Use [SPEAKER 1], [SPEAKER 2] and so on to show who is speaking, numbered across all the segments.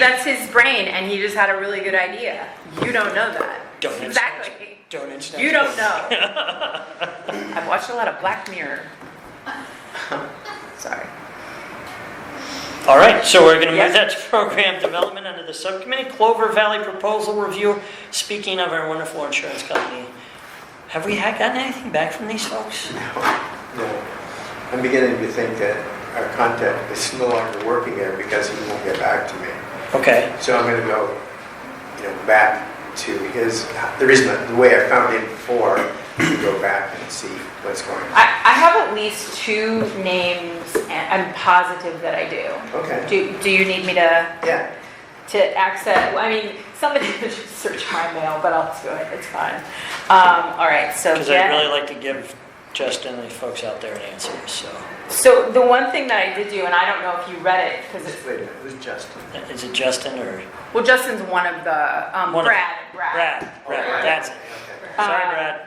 [SPEAKER 1] That's his brain, and he just had a really good idea. You don't know that.
[SPEAKER 2] Don't mention it.
[SPEAKER 1] Exactly.
[SPEAKER 2] Don't internet.
[SPEAKER 1] You don't know. I've watched a lot of Black Mirror. Sorry.
[SPEAKER 2] All right, so we're going to
[SPEAKER 1] Yes.
[SPEAKER 2] move that to program development under the subcommittee. Clover Valley proposal review. Speaking of our wonderful insurance company, have we had gotten anything back from these folks?
[SPEAKER 3] No. I'm beginning to think that our contact is no longer working there because he won't get back to me.
[SPEAKER 2] Okay,
[SPEAKER 3] So I'm gonna go, you know, back to his, the reason, the way I found him before, to go back and see what's going on.
[SPEAKER 1] I, I have at least two names, and I'm positive that I do.
[SPEAKER 3] Okay,
[SPEAKER 1] Do, do you need me to,
[SPEAKER 3] yeah.
[SPEAKER 1] to access? I mean, somebody could just search my mail, but I'll just do it. It's fine. Um, all right, so.
[SPEAKER 2] because I'd
[SPEAKER 1] Jen-
[SPEAKER 2] really like to give Justin and the folks out there an answer, so.
[SPEAKER 1] So the one thing that I did do, and I don't know if you read it, because it's,
[SPEAKER 3] Wait a minute, who's Justin?
[SPEAKER 2] Is it Justin or?
[SPEAKER 1] well, Justin's one of the, um,
[SPEAKER 2] One of-
[SPEAKER 1] Brad, Brad.
[SPEAKER 2] Brad, Brad, that's it.
[SPEAKER 3] Oh, Okay.
[SPEAKER 2] Sorry,
[SPEAKER 1] Uh,
[SPEAKER 2] Brad,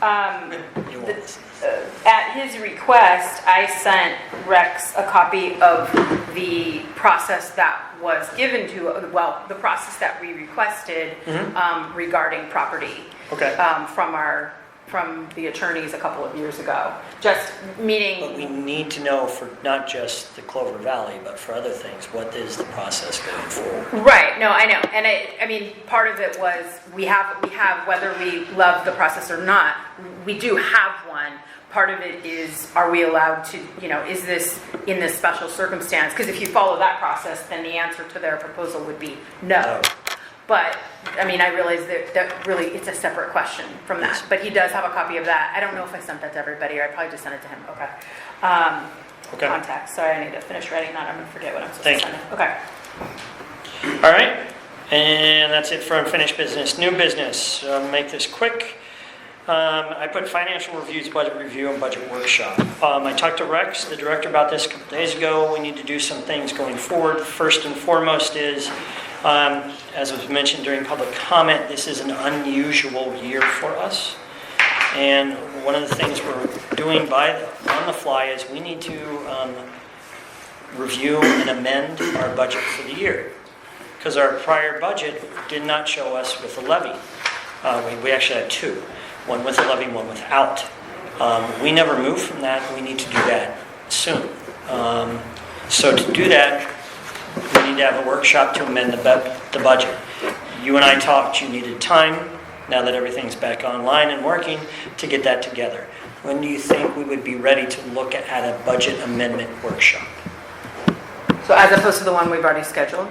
[SPEAKER 1] Um,
[SPEAKER 2] you won't listen.
[SPEAKER 1] uh, at his request, I sent Rex a copy of the process that was given to, well, the process that we requested
[SPEAKER 2] Mhm.
[SPEAKER 1] um, regarding property
[SPEAKER 2] Okay.
[SPEAKER 1] um, from our, from the attorneys a couple of years ago. Just
[SPEAKER 2] But we
[SPEAKER 1] meaning,
[SPEAKER 2] need to know for not just the Clover Valley, but for other things, what is the process going forward?
[SPEAKER 1] right, no, I know. And I, I mean, part of it was, we have, we have, whether we love the process or not, we do have one. Part of it is, are we allowed to, you know, is this in this special circumstance? Because if you follow that process, then the answer to their proposal would be no.
[SPEAKER 2] No.
[SPEAKER 1] But, I mean, I realize that, that really, it's a separate question from that, but he does have a copy of that. I don't know if I sent that to everybody, or I probably just sent it to him, okay. Um,
[SPEAKER 2] Okay.
[SPEAKER 1] Contacts, sorry, I need to finish writing that, I'm gonna forget what I'm supposed to
[SPEAKER 2] Thank
[SPEAKER 1] send him. Okay.
[SPEAKER 2] All right, and that's it for unfinished business. New business, uh, make this quick. Um, I put financial reviews, budget review, and budget workshop. Um, I talked to Rex, the director, about this a couple days ago. We need to do some things going forward. First and foremost is, um, as was mentioned during public comment, this is an unusual year for us. And one of the things we're doing by, on the fly is we need to um, review and amend our budget for the year because our prior budget did not show us with a levy. Uh, we- We actually had two, one with a levy, one without. Um, We never moved from that, we need to do that soon. Um, So to do that, we need to have a workshop to amend the bu- the budget. You and I talked, you needed time, now that everything's back online and working, to get that together. When do you think we would be ready to look at a budget amendment workshop?
[SPEAKER 1] So as opposed to the one we've already scheduled?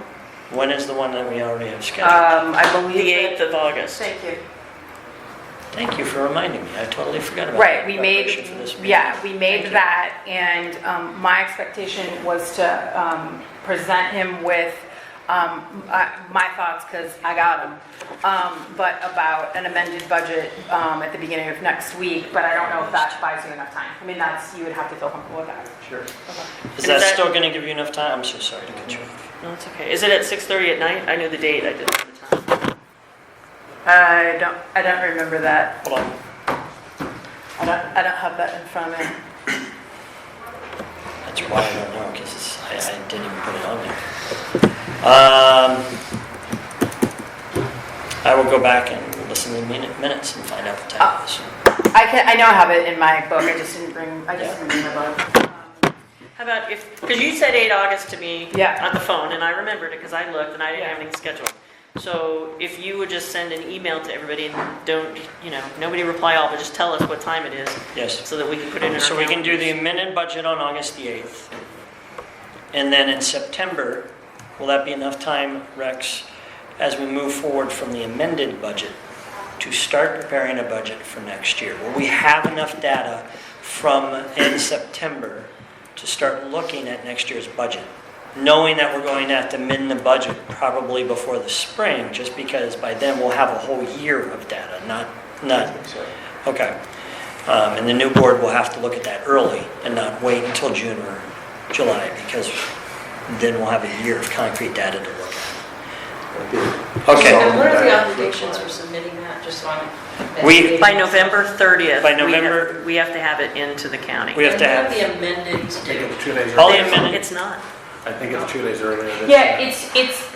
[SPEAKER 2] When is the one that we already have scheduled?
[SPEAKER 1] Um, I believe.
[SPEAKER 4] The
[SPEAKER 1] that-
[SPEAKER 4] 8th of August.
[SPEAKER 1] Thank you.
[SPEAKER 2] Thank you for reminding me. I totally forgot about
[SPEAKER 1] Right,
[SPEAKER 2] that
[SPEAKER 1] we
[SPEAKER 2] preparation
[SPEAKER 1] made,
[SPEAKER 2] for this meeting.
[SPEAKER 1] yeah, we
[SPEAKER 2] Thank
[SPEAKER 1] made
[SPEAKER 2] you.
[SPEAKER 1] that, and um, my expectation was to um, present him with um, I- my thoughts, because I got them, but about an amended budget um, at the beginning of next week, but I don't know if that buys you enough time. I mean, that's, you would have to feel comfortable with that.
[SPEAKER 3] Sure.
[SPEAKER 2] Is that
[SPEAKER 4] Is that-
[SPEAKER 2] still going to give you enough time? I'm so sorry to cut you off.
[SPEAKER 4] No, it's okay. Is it at 6:30 at night? I knew the date, I didn't know the time.
[SPEAKER 1] I don't, I don't remember that.
[SPEAKER 2] Hold on.
[SPEAKER 1] I don't, I don't have that in front of me.
[SPEAKER 2] That's why I don't know, because I I didn't even put it on there. Um, I will go back and listen to the minu- minutes and find out the time. is.
[SPEAKER 1] I can, I know I have it in my book, I just didn't bring, I just didn't bring my book.
[SPEAKER 4] How about if, because you said 8 August to me
[SPEAKER 1] Yeah.
[SPEAKER 4] on the phone, and I remembered it because I looked and I didn't have anything scheduled. So if you would just send an email to everybody and don't, you know, nobody reply all, but just tell us what time it is
[SPEAKER 2] Yes.
[SPEAKER 4] so that we can put it in our
[SPEAKER 2] So we can do the
[SPEAKER 4] calendars.
[SPEAKER 2] amended budget on August the 8th. And then in September, will that be enough time, Rex, as we move forward from the amended budget to start preparing a budget for next year? Will we have enough data from in September to start looking at next year's budget? Knowing that we're going to have to amend the budget probably before the spring, just because by then we'll have a whole year of data, not, not
[SPEAKER 3] So,
[SPEAKER 2] Okay. Um, And the new board will have to look at that early and not wait until June or July, because then we'll have a year of concrete data to look
[SPEAKER 3] okay.
[SPEAKER 2] at. Okay.
[SPEAKER 3] So- uh, what are the obligations for
[SPEAKER 5] submitting that, just on?
[SPEAKER 2] We-
[SPEAKER 4] By November 30th.
[SPEAKER 2] By
[SPEAKER 4] we have-
[SPEAKER 2] November-
[SPEAKER 4] We have to have it into the county.
[SPEAKER 2] We have to have,
[SPEAKER 5] amended
[SPEAKER 3] Two days.
[SPEAKER 2] All
[SPEAKER 4] They-
[SPEAKER 2] the amended-
[SPEAKER 4] It's not.
[SPEAKER 6] I think it's two days earlier. than-
[SPEAKER 3] Yeah, it's, it's,